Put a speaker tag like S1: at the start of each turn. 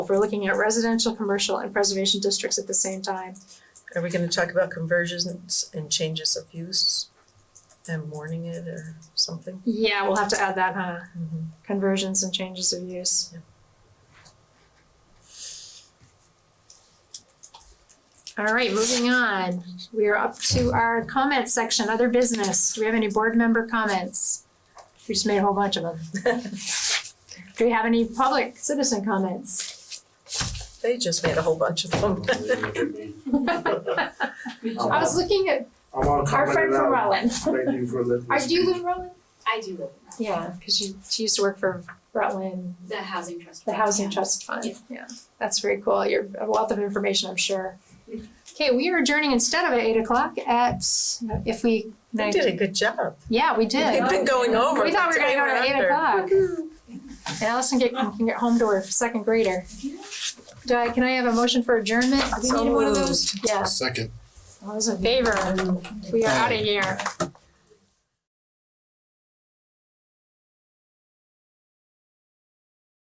S1: If we're looking at residential, commercial and preservation districts at the same time,
S2: Are we gonna talk about conversions and changes of use and warning it or something?
S1: yeah, we'll have to add that, huh?
S2: Mhm.
S1: Conversions and changes of use. All right, moving on. We are up to our comment section, other business. Do we have any board member comments? We just made a whole bunch of them. Do we have any public citizen comments?
S2: They just made a whole bunch of them.
S1: I was looking at
S3: I'm on
S1: our
S3: comment
S1: friend from
S3: now.
S1: Rutland.
S3: Thank you for letting me
S1: Are, do you live
S3: speak.
S1: in Rutland?
S4: I do live in Rutland.
S1: Yeah, because she, she used to work for Rutland,
S4: The housing trust.
S1: the
S4: fund,
S1: Housing
S4: yeah.
S1: Trust Fund.
S4: Yeah.
S1: That's very cool. You're a wealth of information, I'm sure. Okay, we are adjourning instead of at eight o'clock at, if we,
S2: They did a good job.
S1: yeah, we did.
S2: They've been going over.
S1: We thought we were gonna go to
S2: the
S1: eight
S2: time after.
S1: o'clock. And Allison get, can get home to her second grader. Do I, can I have a motion for adjournment? Do we
S2: So
S1: need one of
S2: moved.
S1: those? Yeah,
S5: Second.
S1: all those in favor? We are out of here.